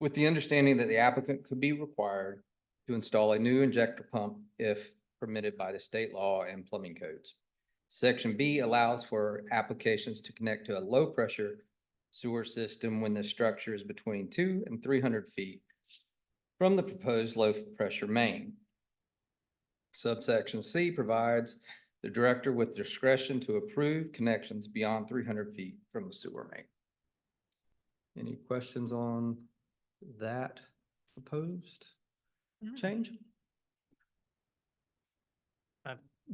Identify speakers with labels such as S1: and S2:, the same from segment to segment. S1: With the understanding that the applicant could be required to install a new injector pump if permitted by the state law and plumbing codes. Section B allows for applications to connect to a low-pressure sewer system when the structure is between two and three hundred feet from the proposed low-pressure main. Subsection C provides the director with discretion to approve connections beyond three hundred feet from the sewer main. Any questions on that proposed
S2: Mm-hmm.
S1: change?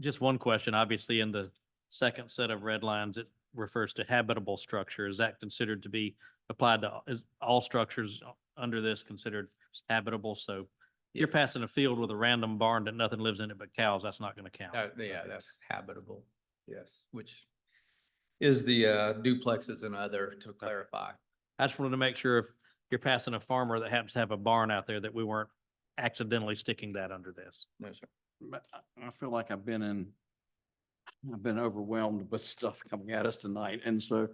S2: Just one question, obviously in the second set of red lines, it refers to habitable structure. Is that considered to be applied to, is all structures under this considered habitable? So if you're passing a field with a random barn that nothing lives in it but cows, that's not going to count.
S1: That- Uh, yeah, that's habitable, yes, which is the uh, duplexes and other to clarify.
S2: I just wanted to make sure if you're passing a farmer that happens to have a barn out there that we weren't accidentally sticking that under this.
S1: No, sir.
S3: But I, I feel like I've been in, I've been overwhelmed with stuff coming at us tonight. And so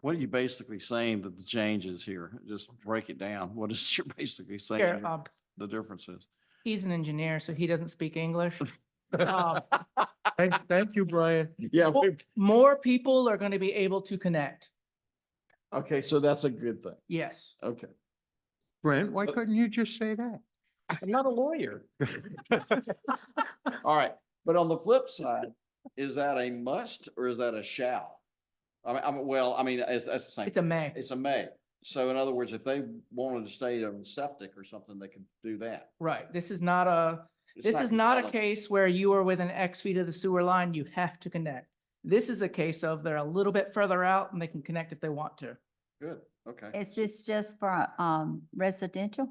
S3: what are you basically saying that the change is here? Just break it down. What is you're basically saying
S4: Here, um,
S3: the difference is?
S4: he's an engineer, so he doesn't speak English. Um,
S5: Thank, thank you, Brian.
S3: Yeah, we-
S4: More people are going to be able to connect.
S3: okay, so that's a good thing.
S4: Yes.
S3: Okay.
S5: Brent, why couldn't you just say that?
S3: I'm not a lawyer. All right, but on the flip side, is that a must or is that a shall? I mean, I'm, well, I mean, it's, that's the same.
S4: It's a may.
S3: It's a may. So in other words, if they wanted to stay on septic or something, they could do that.
S4: Right. This is not a,
S3: It's
S4: this is not a
S3: compelling.
S4: case where you are within X feet of the sewer line, you have to connect. This is a case of they're a little bit further out and they can connect if they want to.
S3: Good, okay.
S6: Is this just for, um, residential?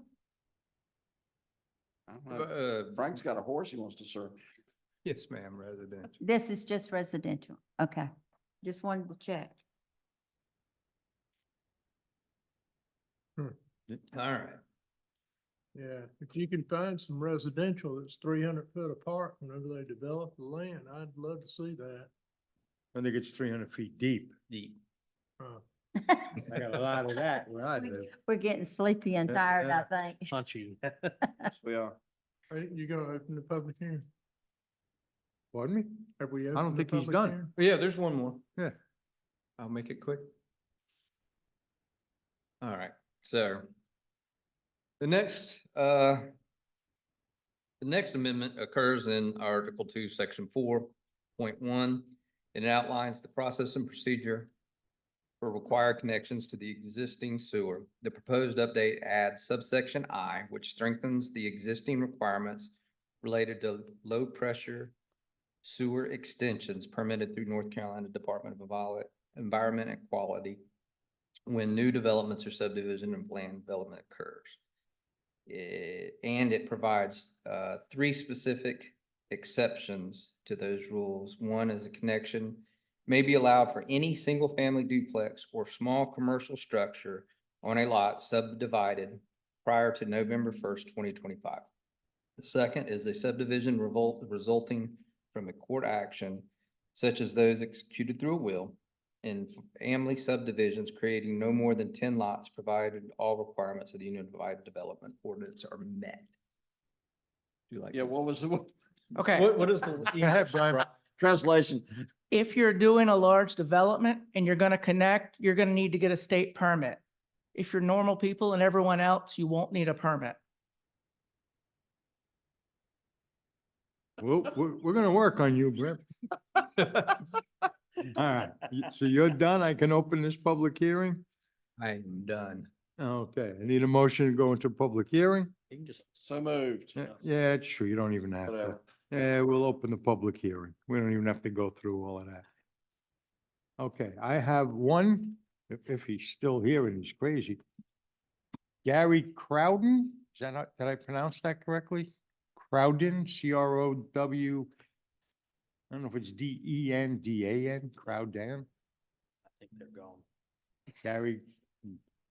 S3: I don't know.
S1: Uh,
S3: Frank's got a horse he wants to serve.
S1: Yes, ma'am, residential.
S6: This is just residential, okay. Just wanted to check.
S1: All right.
S5: Yeah, if you can find some residential that's three hundred foot apart whenever they develop the land, I'd love to see that. I think it's three hundred feet deep.
S1: Deep.
S5: I got a lot of that where I
S6: We-
S5: live.
S6: We're getting sleepy and
S5: Yeah,
S6: tired, I
S5: yeah.
S6: think.
S2: Punchy.
S3: We are.
S5: you gonna open the public hearing? Pardon me? Have we?
S7: don't
S5: opened the
S7: think he's
S5: public
S7: done.
S5: hearing?
S1: Oh, Yeah, there's one more.
S7: Yeah.
S1: I'll make it quick. All right, so the next, uh, the next amendment occurs in Article Two, Section four point one. It outlines the process and procedure for required connections to the existing sewer. The proposed update adds subsection I, which strengthens the existing requirements related to low-pressure sewer extensions permitted through North Carolina Department of Envi- Environment and Quality when new developments or subdivision and land development occurs. Eh, and it provides, uh, three specific exceptions to those rules. One is a connection may be allowed for any single-family duplex or small commercial structure on a lot subdivided prior to November first, twenty twenty-five. The second is a subdivision revolt resulting from a court action such as those executed through a will and family subdivisions creating no more than ten lots provided all requirements of the Unified Development Ordinance are met. Do you like?
S3: Yeah,
S1: that?
S3: what was the
S4: Okay.
S2: what is the?
S5: Brian.
S3: translation?
S4: If you're doing a large development and you're going to connect, you're going to need to get a state permit. If you're normal people and everyone else, you won't need a permit.
S7: Well, we're, we're gonna work on you, Brent. All right, y- so you're done. I can open this public hearing?
S1: I am done.
S7: Okay, I need a motion to go into public hearing?
S2: You can just
S3: So moved.
S7: Yeah, Yeah, it's true. You don't even have to.
S3: Whatever.
S7: Yeah, Eh, we'll open the public hearing. We don't even have to go through all of that. Okay, I have one, if, if he's still here and he's crazy. Gary Crowden, is that not, did I pronounce that correctly? Crowden, C R O W. I don't know if it's D E N, D A N, Crowden.
S2: I think they're gone.
S7: Gary,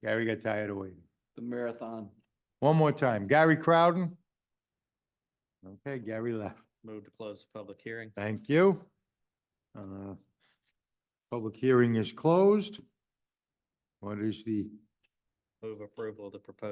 S7: Gary got tired of waiting.
S3: The marathon.
S7: One more time, Gary Crowden. Okay, Gary left.
S2: Move to close the public hearing.
S7: Thank you. Uh, Public hearing is closed. What is the
S2: Move approval of the proposed